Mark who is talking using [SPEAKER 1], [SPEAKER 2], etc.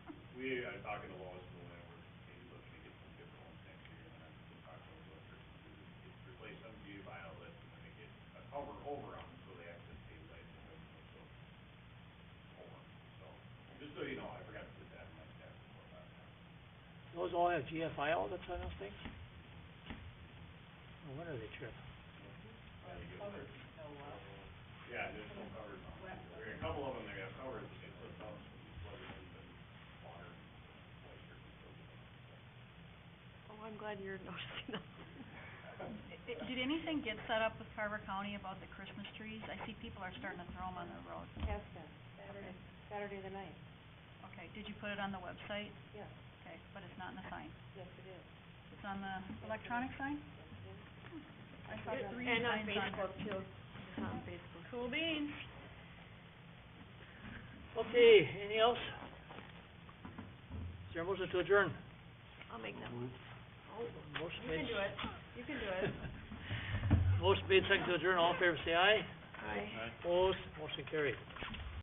[SPEAKER 1] We are talking to Lois Bowen, and we're maybe looking to get some good ones next year, and I'm still talking to Lois to to replace some view violet, and then get a cover over them, so they actually stabilize the wing, so. Over, so, just so you know, I forgot to put that in my staff report last time.
[SPEAKER 2] Those all have GFI outlets on those things? No wonder they trip.
[SPEAKER 1] Uh, you get- Yeah, there's no covers on it, there are a couple of them that have covers, but they flip up, so you plug it in, but water, moisture can still get in.
[SPEAKER 3] Oh, I'm glad you're noticing that.
[SPEAKER 4] Did anything get set up with Carver County about the Christmas trees? I see people are starting to throw them on the road.
[SPEAKER 5] Yes, sir, Saturday, Saturday the ninth,
[SPEAKER 4] Okay, did you put it on the website?
[SPEAKER 5] yes,
[SPEAKER 4] Okay, but it's not in the sign.
[SPEAKER 5] yes it is.
[SPEAKER 4] It's on the electronic sign? I saw three
[SPEAKER 3] And on
[SPEAKER 4] signs on there.
[SPEAKER 3] Facebook too, it's on Facebook.
[SPEAKER 4] Cool beans.
[SPEAKER 2] Okay, anything else? Is there a motion to adjourn?
[SPEAKER 3] I'll make that one. Oh,
[SPEAKER 2] Motion
[SPEAKER 3] You
[SPEAKER 2] made.
[SPEAKER 3] can do it, you can do it.
[SPEAKER 2] Motion made, second to adjourn, all in favor, say aye.
[SPEAKER 3] Aye.
[SPEAKER 2] Opposed, motion carried.